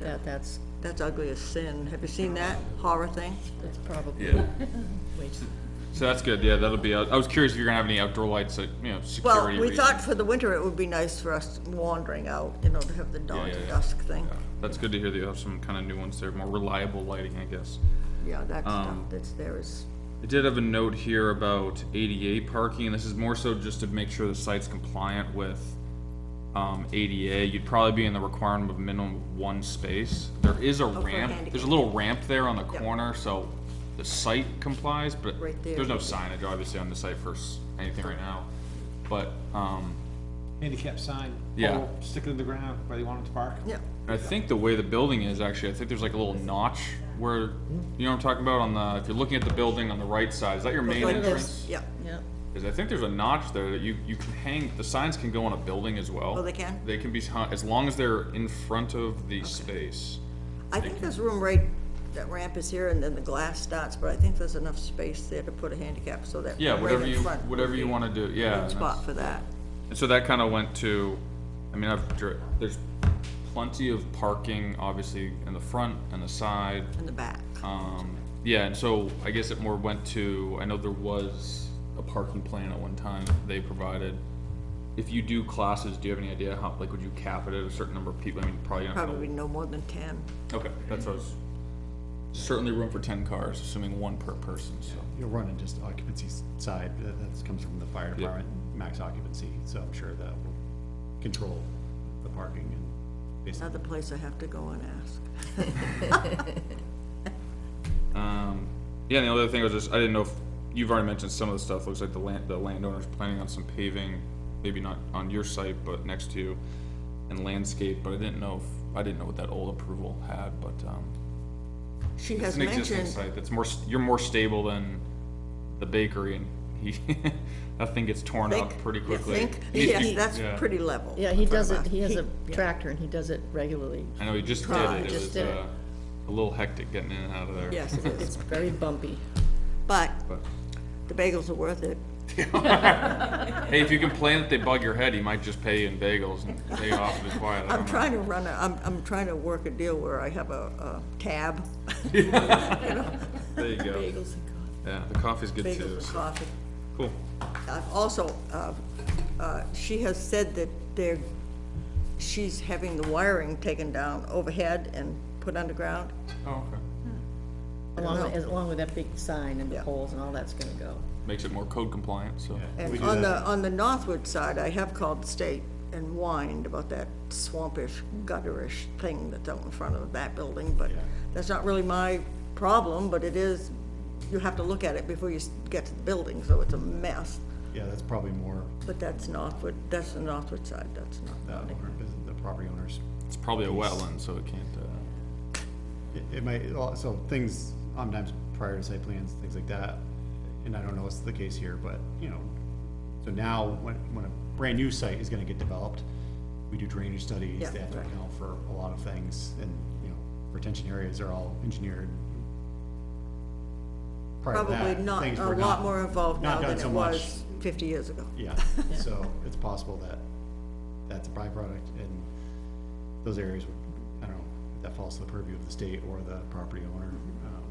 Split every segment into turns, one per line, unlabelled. That, that's,
That's ugly as sin. Have you seen that horror thing?
that's probably,
Yeah,
wait,
so that's good, yeah, that'll be, out I was curious if you're gonna have any outdoor lights, like, you know,
Well,
security
we
reasons.
thought for the winter it would be nice for us wandering out, you know, to have the dawn
yeah,
to
yeah.
dusk thing.
Yeah, That's good to hear that you have some kind of new ones there, more reliable lighting, I guess.
Yeah, that stuff
Um,
that's there is,
I did have a note here about ADA parking, and this is more so just to make sure the site's compliant with, um, ADA. You'd probably be in the requirement of minimum of one space. There is a ramp,
Oh, handicap.
there's a little ramp there on the
Yep.
corner, so the site complies, but
Right there.
there's no signage obviously on the site for s- anything right now. But, um,
handicap sign.
Yeah.
pole, Stick it in the ground where they want them to park.
yeah,
I think the way the building is actually, I think there's like a little notch where, you know what I'm talking about on the, if you're looking at the building on the right side, is that your main
like this.
entrance?
yeah.
yeah,
Cause I think there's a notch there that you, you can hang, the signs can go on a building as well.
Oh, they can?
They can be, hung- as long as they're in front of the space.
I think there's room right, that ramp is here and then the glass starts, but I think there's enough space there to put a handicap so that
Yeah,
right
whatever
in
you,
front. would
whatever you
be
wanna do,
a
yeah.
good
and
Spot
that's-
for that.
And so that kinda went to, I mean, I've, dri- there's plenty of parking, obviously, in the front and the side.
In the back.
Um, yeah, and so I guess it more went to, I know there was a parking plan at one time they provided. If you do classes, do you have any idea how, like, would you cap it at a certain number of people? I mean, probably not.
Probably no more than ten.
Okay, that's what I was, certainly room for ten cars, assuming one per person, so.
You'll run into just occupancy s- side, but that comes from the fire department, max occupancy, so I'm sure that will control the parking and based on
Another place I have to go and ask.
Um, yeah, and the other thing was just, I didn't know if, you've already mentioned some of the stuff, looks like the land, the landowner's planning on some paving, maybe not on your site, but next to you, and landscape, but I didn't know if, I didn't know what that old approval had, but, um,
She
It's
has
an existing
mentioned,
site that's more, s- you're more stable than the bakery and he, that thing gets torn up
Think-
pretty
you
quickly.
think,
He-
yes,
he-
that's
yeah.
pretty level.
yeah, he
for
does
us.
it, he has a
yeah.
tractor and he does it regularly,
I know, he just did
Right,
it. It
just
was,
did it.
uh, a little hectic getting in and out of there.
Yes, it is.
it's very bumpy.
But
But-
the bagels are worth it.
Hey, if you complain that they bug your head, he might just pay you in bagels and pay you off and be quiet. I
I'm
don't know.
trying to run a, I'm, I'm trying to work a deal where I have a, a tab,
There you go.
Bagels and coffee.
Yeah, the coffee's good
bagels
too.
and
so-
coffee.
Cool.
I've also, uh, uh, she has said that they're, she's having the wiring taken down overhead and put underground.
Oh, okay.
Along,
know.
with- along with that big sign and the
Yeah.
poles and all that's gonna go.
Makes it more code compliant, so.
We
And
do
on the,
that.
on the northward side, I have called the state and whined about that swampish, gutterish thing that's out in front of that building, but that's not really my problem, but it is, you have to look at it before you s- get to the building, so it's a mess.
Yeah, that's probably more
But that's northward, that's the northward side, that's
the
not,
owner, the property owners.
It's probably a wetland, so it can't, uh.
It, it might, well, so things, sometimes prior to site plans, things like that, and I don't know what's the case here, but, you know, so now, when, when a brand-new site is gonna get developed, we do drainage
Yeah,
studies, they have to
right.
account for a lot of things, and, you know, retention areas are all engineered. Prior to
probably
that,
not,
things
a
were
lot more involved now
not done
than it
so much.
was fifty years ago.
Yeah, so it's possible that that's a byproduct and those areas would, I don't know, if that falls to the purview of the state or the property owner. um,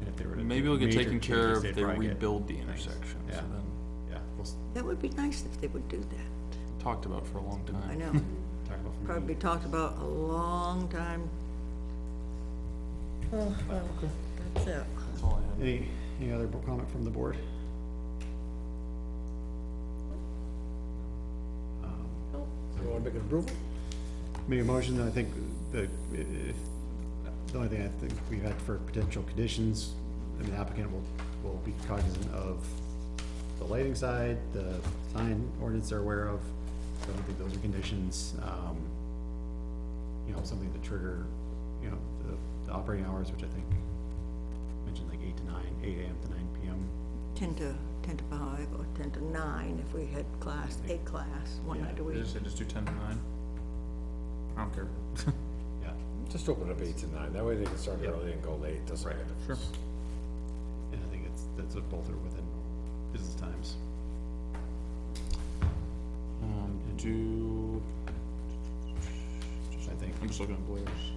And if they were to.
Maybe
do
it'll get
major
taken care
changes,
of
they'd
if they
probably get-
rebuild the intersection, so
Yeah.
then,
Yeah, we'll s-
That would be nice if they would do that,
talked about for a long time.
I know.
talk about. from-
Probably talked about a long time.
Oh, well,
That's it.
That's all I had.
Any, any other bo- comment from the board? Make a motion, then I think the, if, the only thing I think we had for potential conditions, I mean, the applicant will, will be cognizant of the lighting side, the sign ordinance they're aware of, so I don't think those are conditions, um, you know, something to trigger, you know, the, the operating hours, which I think mentioned like eight to nine, eight AM to nine PM.
Ten to, ten to five or ten to nine if we had class, a class, one
Yeah,
night a week.
They just, they just do ten to nine. I don't care.
Yeah,
Just open it up eight to nine, that way they can start early and go late, doesn't make a difference.
Sure.
and I think it's, that's what both are within business times.
Um, do,
I think.
Um, I'm just looking at Blair's.